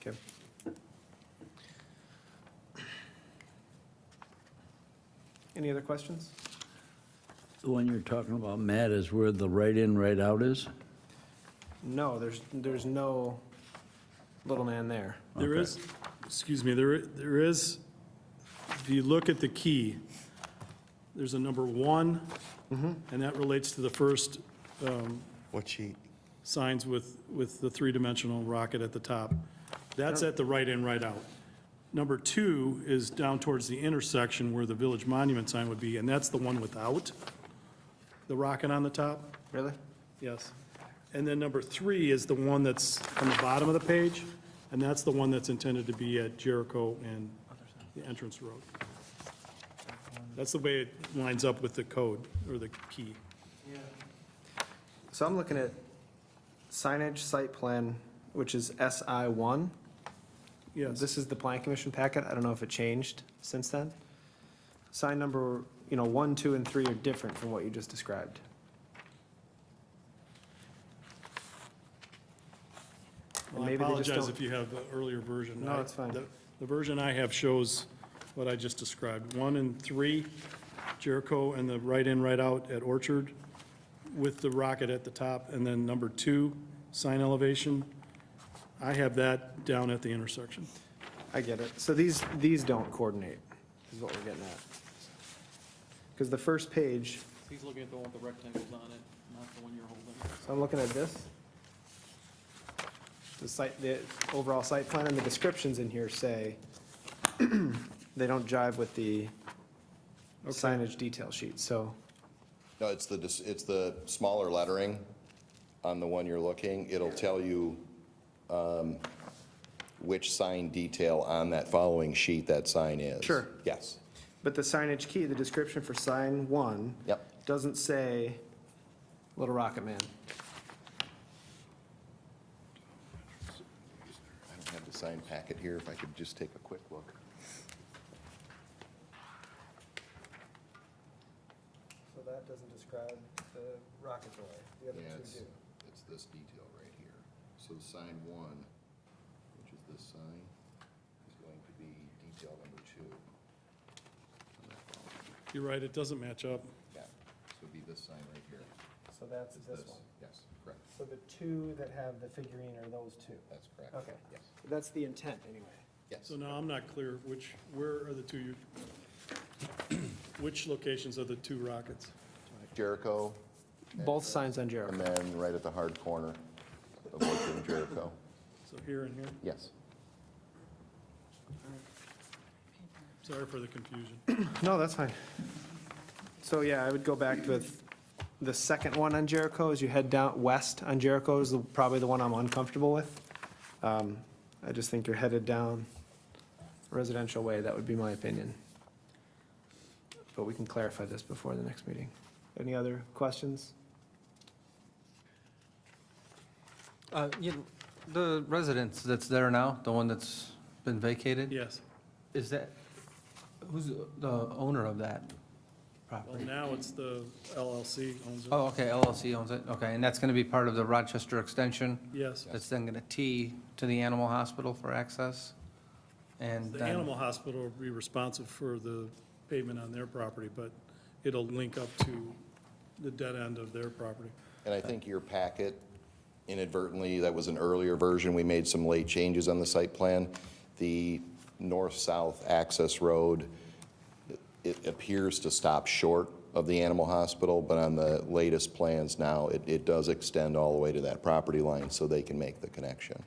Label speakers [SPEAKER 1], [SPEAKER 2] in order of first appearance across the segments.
[SPEAKER 1] Okay. Any other questions?
[SPEAKER 2] The one you're talking about, Matt, is where the right-in, right-out is?
[SPEAKER 1] No, there's, there's no little man there.
[SPEAKER 3] There
[SPEAKER 2] Okay.
[SPEAKER 3] is, excuse me, there, there is, if you look at the key, there's a number one, and that relates to the first
[SPEAKER 4] What sheet?
[SPEAKER 3] signs with, with the three-dimensional rocket at the top. That's at the right in, right out. Number two is down towards the intersection where the village monument sign would be, and that's the one without the rocket on the top,
[SPEAKER 1] Really?
[SPEAKER 3] yes. And then number three is the one that's on the bottom of the page, and that's the one that's intended to be at Jericho and the entrance road. That's the way it lines up with the code or the key.
[SPEAKER 1] So I'm looking at signage site plan, which is SI one.
[SPEAKER 3] Yes.
[SPEAKER 1] This is the Plan Commission packet. I don't know if it changed since then. Sign number, you know, one, two, and three are different from what you just described.
[SPEAKER 3] Well, I
[SPEAKER 1] Maybe they just
[SPEAKER 3] apologize
[SPEAKER 1] don't-
[SPEAKER 3] if you have the earlier version.
[SPEAKER 1] No,
[SPEAKER 3] I-
[SPEAKER 1] it's fine.
[SPEAKER 3] the- The version I have shows what I just described, one and three, Jericho and the right-in, right-out at Orchard with the rocket at the top, and then number two, sign elevation. I have that down at the intersection.
[SPEAKER 1] I get it. So these, these don't coordinate, is what we're getting at. Because the first page,
[SPEAKER 5] He's looking at the one with the rectangles on it, not the one you're holding.
[SPEAKER 1] so I'm looking at this. The site, the overall site plan and the descriptions in here say they don't jive with the signage detail sheet, so.
[SPEAKER 4] No, it's the, dis- it's the smaller lettering on the one you're looking. It'll tell you um, which sign detail on that following sheet that sign is.
[SPEAKER 1] Sure.
[SPEAKER 4] Yes.
[SPEAKER 1] But the signage key, the description for sign one.
[SPEAKER 4] Yep.
[SPEAKER 1] Doesn't say Little Rocket Man.
[SPEAKER 4] I don't have the sign packet here, if I could just take a quick look.
[SPEAKER 1] So that doesn't describe the rocket boy. The
[SPEAKER 4] Yeah, it's, it's this detail right here. So sign one, which is this sign, is going to be detail number two. on that following.
[SPEAKER 3] You're right, it doesn't match up.
[SPEAKER 4] Yeah, so it'd be this sign right here.
[SPEAKER 1] So that's
[SPEAKER 4] It's
[SPEAKER 1] this one.
[SPEAKER 4] Yes, correct.
[SPEAKER 1] So the two that have the figurine are those two?
[SPEAKER 4] That's correct.
[SPEAKER 1] Okay.
[SPEAKER 4] Yes,
[SPEAKER 1] That's the intent, anyway.
[SPEAKER 4] yes.
[SPEAKER 3] So now I'm not clear which, where are the two, you- which locations are the two rockets?
[SPEAKER 4] Jericho,
[SPEAKER 1] Both signs on
[SPEAKER 4] and
[SPEAKER 1] Jericho.
[SPEAKER 4] then right at the hard corner of Orchard and Jericho.
[SPEAKER 3] So here and here?
[SPEAKER 4] Yes.
[SPEAKER 3] Sorry for the confusion.
[SPEAKER 1] No, that's fine. So, yeah, I would go back with the second one on Jericho, as you head down west on Jericho is the- probably the one I'm uncomfortable with. Um, I just think you're headed down residential way, that would be my opinion. But we can clarify this before the next meeting. Any other questions?
[SPEAKER 6] Uh, yeah, The residence that's there now, the one that's been vacated,
[SPEAKER 3] Yes.
[SPEAKER 6] is that, who's the owner of that
[SPEAKER 3] Well,
[SPEAKER 6] property?
[SPEAKER 3] now it's the LLC owns it.
[SPEAKER 6] Oh, okay, LLC owns it, okay, and that's going to be part of the Rochester Extension?
[SPEAKER 3] Yes.
[SPEAKER 6] That's then going to tee to the animal hospital for access? And
[SPEAKER 3] The
[SPEAKER 6] then,
[SPEAKER 3] animal hospital will be responsible for the pavement on their property, but it'll link up to the dead end of their property.
[SPEAKER 4] And I think your packet inadvertently, that was an earlier version, we made some late changes on the site plan. The north-south access road, it appears to stop short of the animal hospital, but on the latest plans now, it, it does extend all the way to that property line so they can make the connection.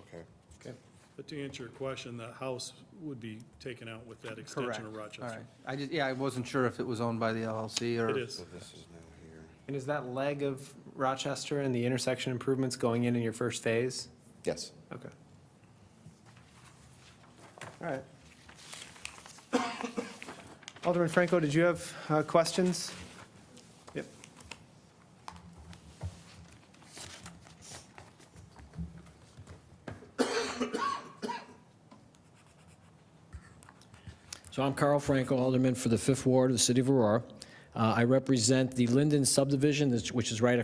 [SPEAKER 4] Okay.
[SPEAKER 3] But to answer your question, the house would be taken out with that
[SPEAKER 6] correct,
[SPEAKER 3] extension
[SPEAKER 6] all
[SPEAKER 3] of
[SPEAKER 6] right.
[SPEAKER 3] Rochester.
[SPEAKER 6] I just, yeah, I wasn't sure if it was owned by the LLC or...
[SPEAKER 3] It is.
[SPEAKER 1] And is that leg of Rochester and the intersection improvements going in in your first phase?
[SPEAKER 4] Yes.
[SPEAKER 1] Okay. All right. Alderman Franco, did you have uh, questions? Yep.
[SPEAKER 7] So I'm Carl Franco, Alderman for the Fifth Ward of the City of Aurora. Uh, I represent the Linden subdivision, that's- which is right across